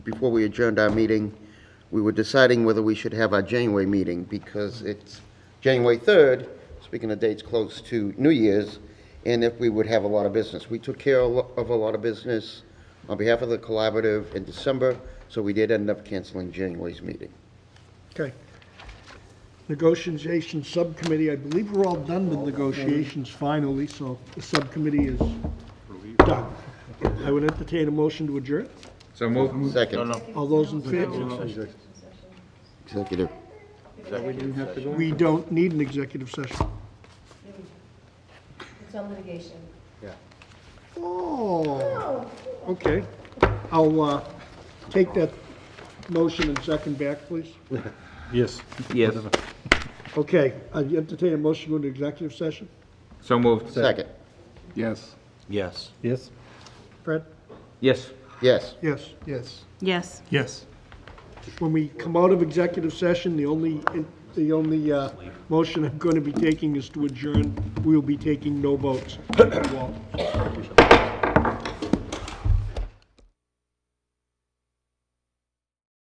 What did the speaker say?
before we adjourned our meeting, we were deciding whether we should have our January meeting, because it's January 3rd, speaking of dates close to New Year's, and if we would have a lot of business. We took care of a lo- of a lot of business on behalf of the collaborative in December, so we did end up canceling January's meeting. Okay. Negotiation Subcommittee, I believe we're all done with negotiations finally, so the subcommittee is done. I would entertain a motion to adjourn. So move. Second, All those in favor? executive. We don't need an executive session. It's on litigation. Oh, okay. I'll uh, take that motion and second back, please. Yes. Yes. Okay, I entertain a motion to go into executive session. So moved. Second, Yes. Yes. Yes. Fred? Yes. yes. Yes. Yes. Yes. Yes. When we come out of executive session, the only, the only uh, motion I'm going to be taking is to adjourn. We'll be taking no votes.